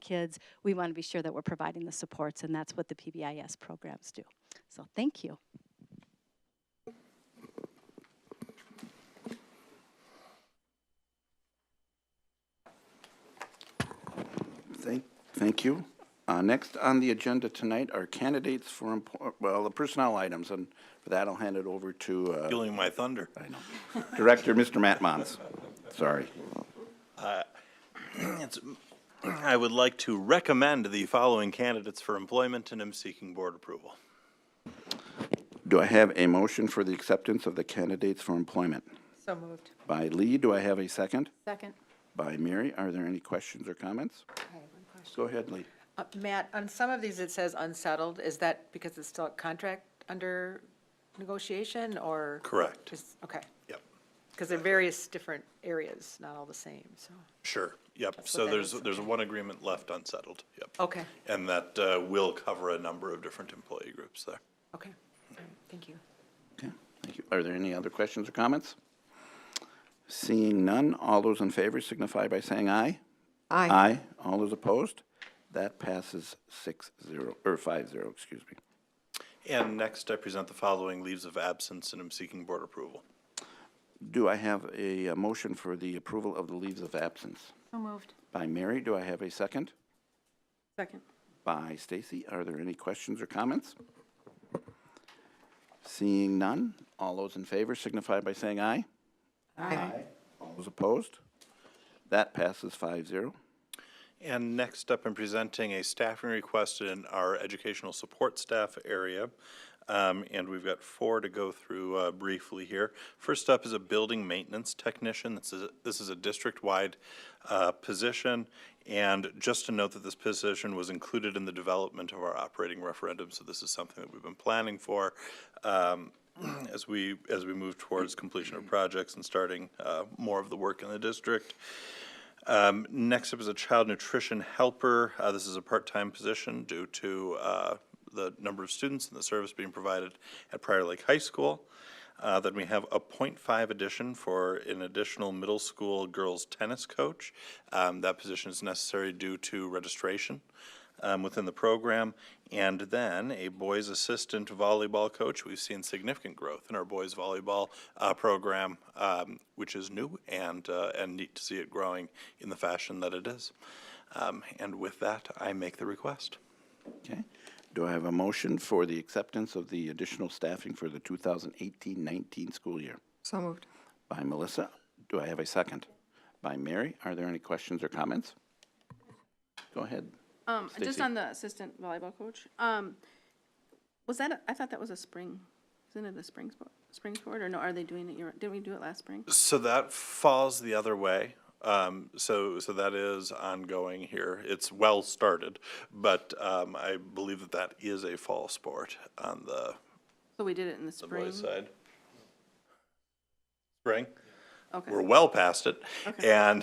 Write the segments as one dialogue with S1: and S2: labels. S1: kids, we want to be sure that we're providing the supports, and that's what the PBIS programs do. So thank you.
S2: Thank, thank you. Uh, Next on the agenda tonight are candidates for, empo- well, the personnel items, and for that, I'll hand it over to uh,
S3: stealing my thunder.
S2: Director, Mr. Matt Mons. Sorry.
S3: It's- mm, I would like to recommend the following candidates for employment, and am seeking board approval.
S2: Do I have a motion for the acceptance of the candidates for employment?
S4: So moved.
S2: By Lee, do I have a second?
S4: Second.
S2: By Mary, are there any questions or comments? Go ahead, Lee.
S4: Uh, Matt, on some of these, it says unsettled. Is that because it's still a contract under negotiation or?
S3: Correct.
S4: Just- Okay,
S3: Yep,
S4: because they're various different areas, not all the same, so.
S3: sure, yep. So
S4: that
S3: there's,
S4: is.
S3: there's one agreement left unsettled, yep.
S4: Okay,
S3: And that uh, will cover a number of different employee groups there.
S4: okay. All right, Thank you.
S2: Okay, thank you. Are there any other questions or comments? Seeing none, all those in favor signify by saying aye. Aye. Aye. All those opposed? That passes six zero, or five zero, excuse me.
S3: And next, I present the following leaves of absence, and am seeking board approval.
S2: Do I have a uh, motion for the approval of the leaves of absence?
S4: So moved.
S2: By Mary, do I have a second?
S4: Second.
S2: By Stacy, are there any questions or comments? Seeing none, all those in favor signify by saying aye.
S4: Aye.
S2: All those opposed? That passes five zero.
S3: And next up, I'm presenting a staffing request in our educational support staff area. Um, And we've got four to go through uh, briefly here. First up is a building maintenance technician. This is, this is a district-wide uh, position. And just to note that this position was included in the development of our operating referendum, so this is something that we've been planning for um, as we, as we move towards completion of projects and starting uh, more of the work in the district. Um, Next up is a child nutrition helper. Uh, This is a part-time position due to uh, the number of students and the service being provided at Prior Lake High School. Uh, Then we have a .5 addition for an additional middle school girls tennis coach. Um, That position is necessary due to registration um, within the program. And then a boys assistant volleyball coach. We've seen significant growth in our boys volleyball uh, program, um, which is new and, uh, and neat to see it growing in the fashion that it is. Um, And with that, I make the request.
S2: Okay. Do I have a motion for the acceptance of the additional staffing for the 2018-19 school year?
S5: So moved.
S2: By Melissa. Do I have a second? By Mary. Are there any questions or comments? Go ahead.
S6: Um, just
S2: Stacy.
S6: on the assistant volleyball coach, um, was that, a- I thought that was a spring, isn't it a spring sport, spring sport, or no, are they doing it, year- did we do it last spring?
S3: So that falls the other way. Um, so, so that is ongoing here. It's well started, but um, I believe that that is a fall sport on the
S6: So we did it in the
S3: the
S6: spring?
S3: boys' side. Spring?
S6: Okay,
S3: We're well past it and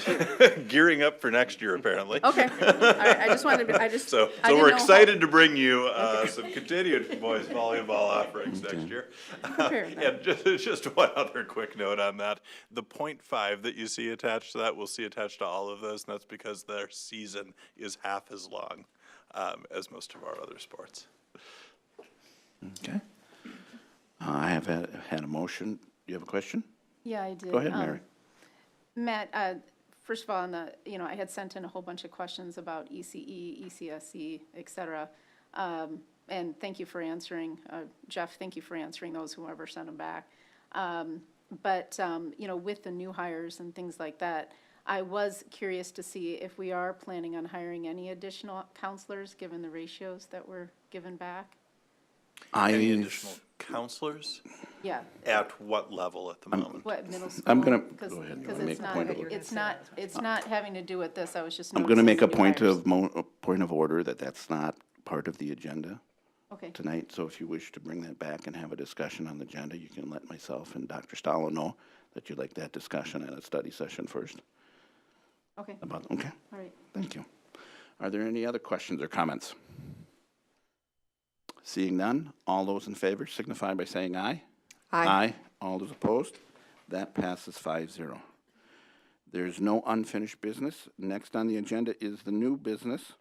S3: gearing up for next year, apparently.
S6: okay, all right, I just wanted to, I just.
S3: So,
S6: Oh, I
S3: so
S6: didn't
S3: we're
S6: know how-
S3: excited to bring you uh, some continued boys volleyball offerings next year.
S6: Fair enough.
S3: And just, just one other quick note on that. The point five that you see attached to that, we'll see attached to all of those, and that's because their season is half as long um, as most of our other sports.
S2: Okay. Uh, I have had, had a motion. Do you have a question?
S7: Yeah, I did.
S2: Go ahead,
S7: Um,
S2: Mary.
S7: Matt, uh, first of all, on the, you know, I had sent in a whole bunch of questions about E ECE, ECSE, E, et cetera. Um, And thank you for answering. Uh, Jeff, thank you for answering those, whoever sent them back. Um, But, um, you know, with the new hires and things like that, I was curious to see if we are planning on hiring any additional counselors, given the ratios that were given back?
S3: Any
S2: I,
S3: additional counselors?
S7: Yeah.
S3: At what level at the moment?
S7: What, middle school?
S2: I'm gonna-
S7: Because-
S2: go ahead, you wanna
S7: because
S2: make
S7: it's
S2: a
S7: not-
S2: point of
S7: It's not, it's not having to do with this, I was just
S2: I'm
S7: noticing.
S2: going to make a
S7: the new
S2: point
S7: hires.
S2: of, mo- a point of order that that's not part of the agenda
S7: Okay,
S2: tonight. So if you wish to bring that back and have a discussion on the agenda, you can let myself and Dr. Stallo know that you'd like that discussion at a study session first
S7: okay,
S2: about, okay?
S7: all right.
S2: Thank you. Are there any other questions or comments? Seeing none, all those in favor signify by saying aye. All those opposed? That passes 5-0. There's no unfinished business. Next on the agenda is the new business.